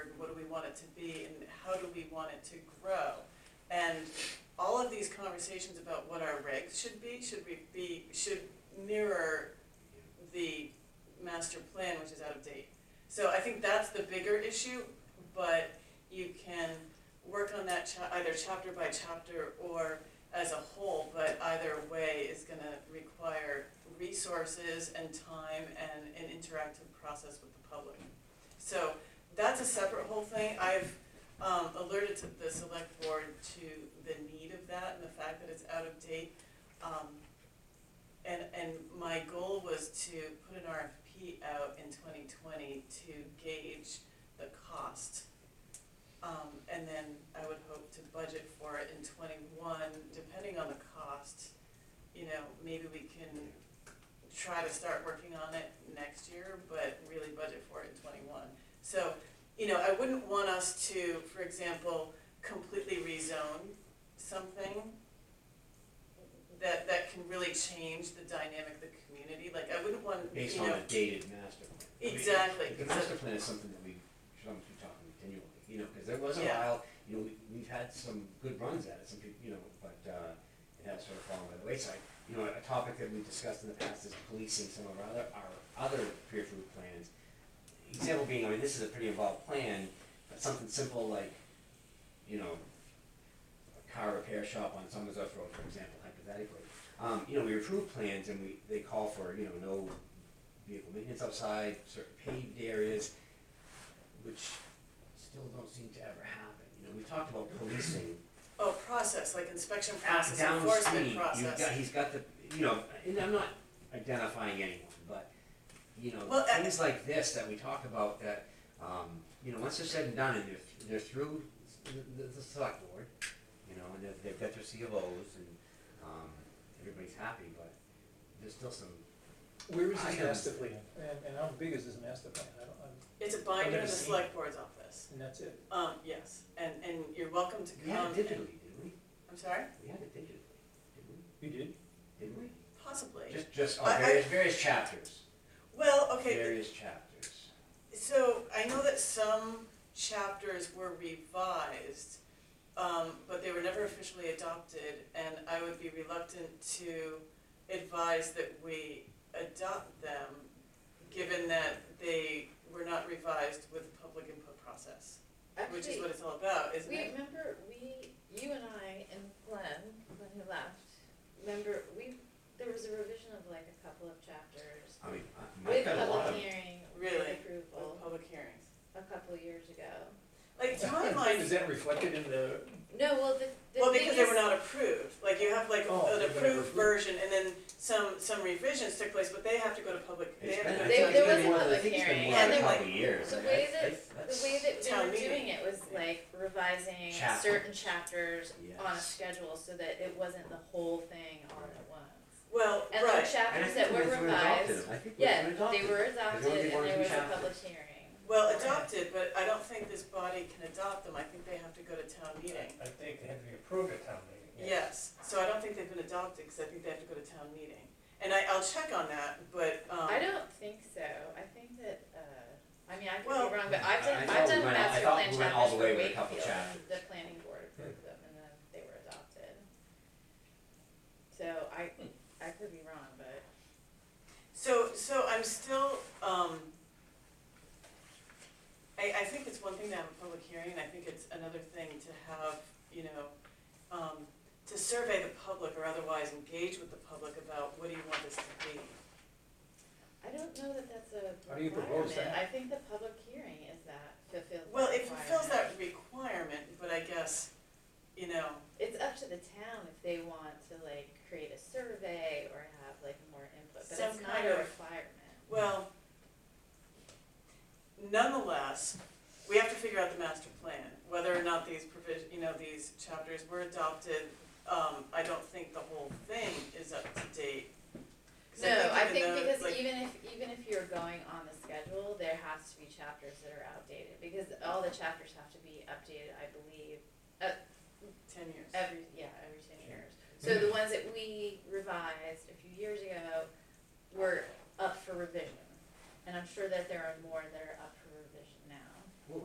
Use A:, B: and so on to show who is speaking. A: want it to be and how do we want it to grow? And all of these conversations about what our regs should be, should we be, should mirror the master plan, which is out of date. So I think that's the bigger issue, but you can work on that cha- either chapter by chapter or as a whole, but either way is gonna require resources and time and an interactive process with the public. So that's a separate whole thing. I've um, alerted to the select board to the need of that and the fact that it's out of date. Um, and, and my goal was to put an RFP out in twenty twenty to gauge the cost. Um, and then I would hope to budget for it in twenty-one, depending on the cost. You know, maybe we can try to start working on it next year, but really budget for it in twenty-one. So, you know, I wouldn't want us to, for example, completely rezone something that, that can really change the dynamic of the community, like, I wouldn't want,
B: based
A: you
B: on
A: know,
B: a dated master plan. I mean,
A: Exactly,
B: The master plan is something that we should almost be talking continually, you know, because there was a
A: Yeah.
B: while, you know, we, we've had some good runs at it, some people, you know, but, uh, it has sort of fallen by the wayside. You know, a topic that we discussed in the past is policing some of our other, our other peer group plans. Example being, I mean, this is a pretty involved plan, but something simple like, you know, a car repair shop on Summers Off Road, for example, hypothetically. Um, you know, we approve plans and we, they call for, you know, no vehicle maintenance outside, certain paved areas, which still don't seem to ever happen. You know, we talked about policing.
A: oh, process, like inspection process,
B: Downstream,
A: enforcement process.
B: you've got, he's got the, you know, and I'm not identifying anyone, but, you know,
A: Well, uh, I-
B: things like this that we talk about that, um, you know, once they're said and done and they're, they're through the, the, the select board, you know, and they've, they've got their CLOs and, um, everybody's happy, but there's still some
C: Where is
B: I
C: this
B: am-
C: master plan? And, and how big is this master plan? I don't, I'm,
A: It's a binder in
C: never
A: the
C: seen
A: select board's office.
C: and that's it.
A: Um, yes, and, and you're welcome to come.
B: We had it
A: and-
B: digitally, didn't we?
A: I'm sorry?
B: We had it digitally, didn't we?
C: You did?
B: Didn't we?
A: Possibly.
B: Just, just,
A: I-
B: on
A: I-
B: various, various chapters,
A: Well, okay,
B: various chapters.
A: so I know that some chapters were revised, um, but they were never officially adopted, and I would be reluctant to advise that we adopt them, given that they were not revised with the public input process, which is
D: Actually,
A: what it's all about, isn't
D: we
A: it?
D: remember, we, you and I and Glenn, when he left, remember, we, there was a revision of like a couple of chapters.
B: I mean, Mike
D: With
B: got a lot
D: public
B: of,
D: hearing, with
A: Really?
D: approval,
A: With public hearings.
D: a couple years ago.
A: Like, to my mind,
C: Is that reflected in the,
D: No, well, the, the
A: Well,
D: thing
A: because they were
D: is-
A: not approved, like you have like
C: Oh,
A: an
C: they were never
A: approved
C: approved.
A: version and then some, some revisions took place, but they have to go to public, they
B: it's
A: have
B: been,
A: to go
B: I
A: to.
D: They-
B: think
D: there
B: it's
D: was
B: been
D: a
B: more, than- I
D: public
B: think it's been
D: hearing,
B: more than
A: and
B: a
A: then, like,
B: couple years.
D: The
B: I mean,
D: way
B: that's-
D: that, the
B: that's-
D: way that we
A: Town
D: were
A: meeting.
D: doing it was like revising
B: Chapter.
D: certain chapters on a
B: Yes.
D: schedule so that it wasn't the whole thing all at once.
A: Well,
D: And the
A: right,
B: And I
D: chapters
B: think
D: that
B: we went
D: were
B: through and adopted
D: revised,
B: them. I think we
D: yeah,
B: went through and
D: they
B: adopted
D: were
B: them.
D: adopted
B: only
D: and
B: one or
D: there
B: two
D: was a
B: chapters.
D: public hearing.
A: well adopted, but I don't think this body can adopt them, I think they have to go to town meeting.
E: I think they have to be approved at town meeting.
A: Yes, so I don't think they've been adopted, cause I think they have to go to town meeting. And I, I'll check on that, but, um,
D: I don't think so, I think that, uh, I mean, I could
A: Well-
D: be wrong, but I've done,
B: I thought
D: I've
B: we
D: done
B: went all- I
D: master
B: thought
D: plan
B: we went all
D: chapters
B: the
D: for
B: way with a couple
D: Wakefield, and
B: chapters. Hmm.
D: the planning board approved them and then they were adopted. So I, I could be wrong, but
A: So, so I'm still, um, I, I think it's one thing to have a public hearing, and I think it's another thing to have, you know, um, to survey the public or otherwise engage with the public about what do you want this to be?
D: I don't know that that's a
C: How do you propose
D: requirement,
C: that?
D: I think the public hearing is that fulfills that
A: Well, it fulfills
D: requirement.
A: that requirement, but I guess, you know,
D: It's up to the town if they want to like create a survey or have like more input, but
A: Some
D: it's not
A: kind
D: a
A: of-
D: requirement.
A: well, nonetheless, we have to figure out the master plan, whether or not these provision, you know, these chapters were adopted. Um, I don't think the whole thing is up to date. 'Cause
D: No, I think
A: even though,
D: because
A: like,
D: even if, even if you're going on the schedule, there has to be chapters that are outdated, because all the chapters have to be updated, I believe,
A: Ten years.
D: every, yeah, every ten years. So the ones that we revised a few years ago were up for revision, and I'm sure that there are more that are up